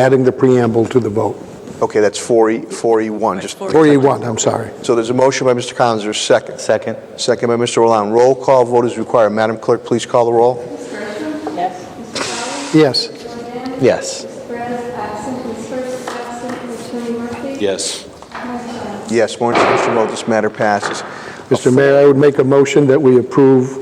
adding the preamble to the vote. Okay, that's E, 4E, 4E1, just, E E 4E1, I'm sorry. so there's a motion by Mr. Collins, there's a second. Second? Second by Mr. Rolland. Roll call vote is required. Madam Clerk, please call the roll. Yes. Yes. Perez, absent. Ms. Hurst, absent. Attorney Murphy? Yes. Yes, more instruction vote, this matter passes. Mr. Mayor, I would make a motion that we approve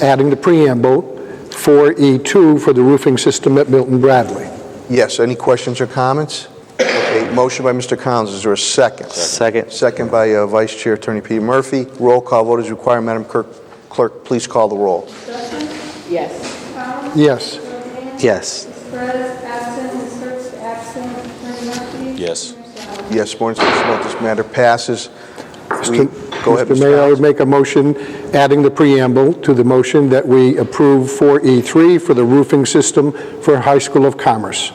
adding the preamble 4E2 for the roofing system at Milton Bradley. Yes, any questions or comments? Okay, motion by Mr. Collins, is there a second? Second. Second by uh, Vice Chair Attorney Peter Murphy. Roll call vote is required. Madam Clerk, Clerk, please call the roll. Yes. Yes. Yes. Ms. Perez, absent. Ms. Hurst, absent. Attorney Murphy? Yes. Yes, more instruction vote, this matter passes. We- Go ahead, Mr. Mayor, I would Collins. make a motion adding the preamble to the motion that we approve 4E3 for the roofing system for High School of Commerce.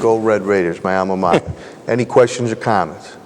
Go Red Raiders, my alma mater. Any questions or comments?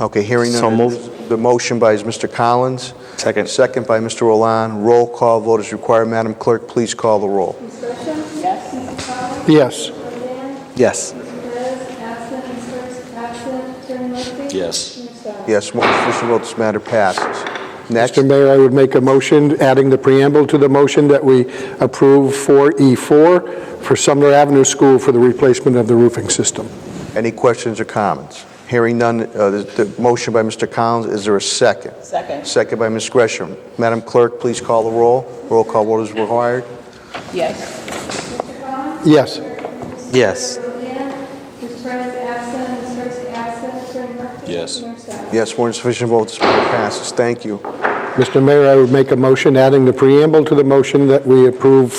Okay, hearing none. So moved. The motion by is Mr. Collins. Second. Second by Mr. Rollan. Roll call vote is required. Madam Clerk, please call the roll. Ms. Gresham? Yes. Mr. Collins? Yes. Rodan? Yes. Ms. Perez, absent. Ms. Hurst, absent. Attorney Murphy? Yes. Ms. Dowd? Yes, more official vote, this matter passes. Next, Mr. Mayor, I would make a motion adding the preamble to the motion that we approve 4E4 for Sumner Avenue School for the replacement of the roofing system. any questions or comments? Hearing none, uh, the the motion by Mr. Collins, is there a second? Second? Second by Ms. Gresham. Madam Clerk, please call the roll. Roll call vote is required. Yes. Mr. Collins? Yes. Ms. Yes. Rodan? Ms. Perez, absent. Ms. Hurst, absent. Attorney Murphy? Yes. Ms. Dowd? Yes, more insufficient votes, this matter passes. Thank you. Mr. Mayor, I would make a motion adding the preamble to the motion that we approve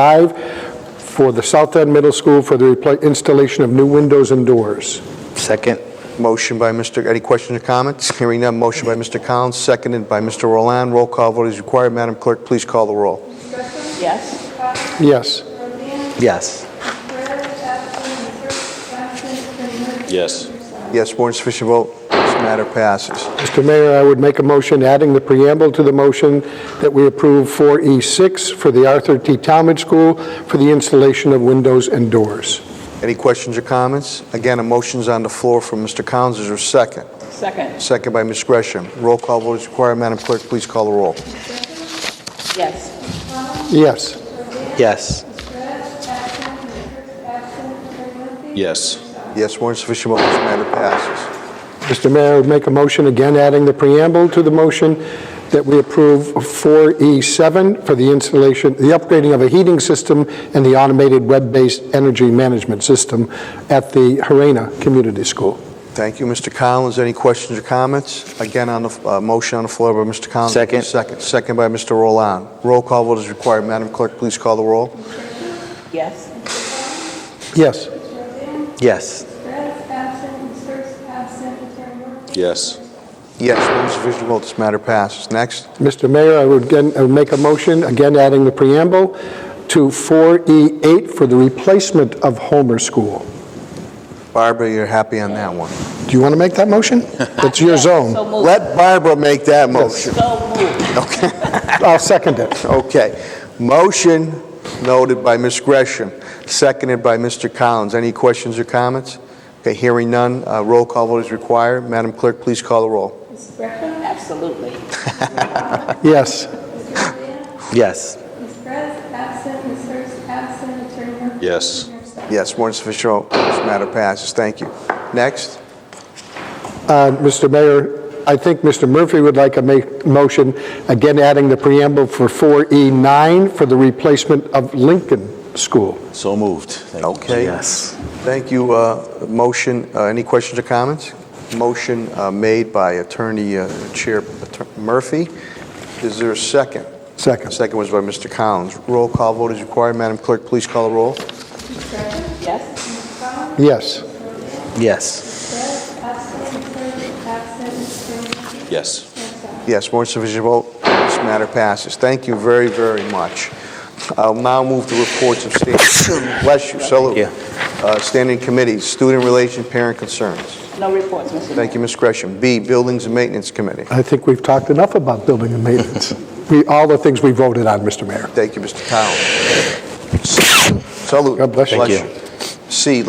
4E5 for the South End Middle School for the repla- installation of new windows and doors. Second? Motion by Mr., any questions or comments? Hearing none, motion by Mr. Collins, seconded by Mr. Roland. Roll call vote is required. Madam Clerk, please call the roll. Ms. Gresham? Yes. Collins? Yes. Rodan? Yes. Perez, absent. Ms. Hurst, absent. Attorney Murphy? Yes. Ms. Dowd? Yes, more insufficient vote, this matter passes. Mr. Mayor, I would make a motion adding the preamble to the motion that we approve 4E6 for the Arthur T. Talmadge School for the installation of windows and doors. Any questions or comments? Again, a motion's on the floor from Mr. Collins, is there a second? Second? Second by Ms. Gresham. Roll call vote is required. Madam Clerk, please call the roll. Yes. Yes. Yes. Perez, absent. Ms. Hurst, absent. Attorney Murphy? Yes. Yes, more insufficient vote, this matter passes. Mr. Mayor, I would make a motion again adding the preamble to the motion that we approve 4E7 for the installation, the upgrading of a heating system and the automated web-based energy management system at the Harena Community School. Thank you, Mr. Collins. Any questions or comments? Again, on the, uh, motion on the floor by Mr. Collins. Second. Second, second by Mr. Rolland. Roll call vote is required. Madam Clerk, please call the roll. Yes. Yes. Yes. Perez, absent. Ms. Hurst, absent. Attorney Murphy? Yes. Yes, one sufficient vote, this matter passes. Next, Mr. Mayor, I would again, I would make a motion, again adding the preamble, to 4E8 for the replacement of Homer School. Barbara, you're happy on that one. Do you want to make that motion? That's your So zone. moved. Let Barbara make that motion. So moved. I'll second it. Okay. Motion noted by Ms. Gresham, seconded by Mr. Collins. Any questions or comments? Okay, hearing none, uh, roll call vote is required. Madam Clerk, please call the roll. Ms. Gresham? Absolutely. Yes. Yes. Ms. Perez, absent. Ms. Hurst, absent. Attorney Murphy? Yes. Ms. Dowd? Yes, more than sufficient vote, this matter passes. Thank you. Next, Uh, Mr. Mayor, I think Mr. Murphy would like a ma- motion, again adding the preamble for 4E9 for the replacement of Lincoln School. So moved. Thank you. Okay. Yes. thank you. Uh, Motion, uh, any questions or comments? Motion uh, made by Attorney uh, Chair Atter- Murphy. Is there a second? Second. Second was by Mr. Collins. Roll call vote is required. Madam Clerk, please call the roll. Ms. Gresham? Yes. Ms. Yes. Collins? Yes. Perez, absent. Ms. Hurst, absent. Attorney Murphy? Yes. Ms. Dowd? Yes, more than sufficient vote. This matter passes. Thank you very, very much. I'll now move to reports of standing, bless you, salute. you. Uh, Standing committees, student relation, parent concerns. No reports, Mr. Mayor. Thank you, Ms. Gresham. B, Buildings and Maintenance Committee. I think we've talked enough about building and maintenance. We, all the things we voted on, Mr. Mayor. Thank you, Mr. Collins. Salute. God bless you. Thank you. C,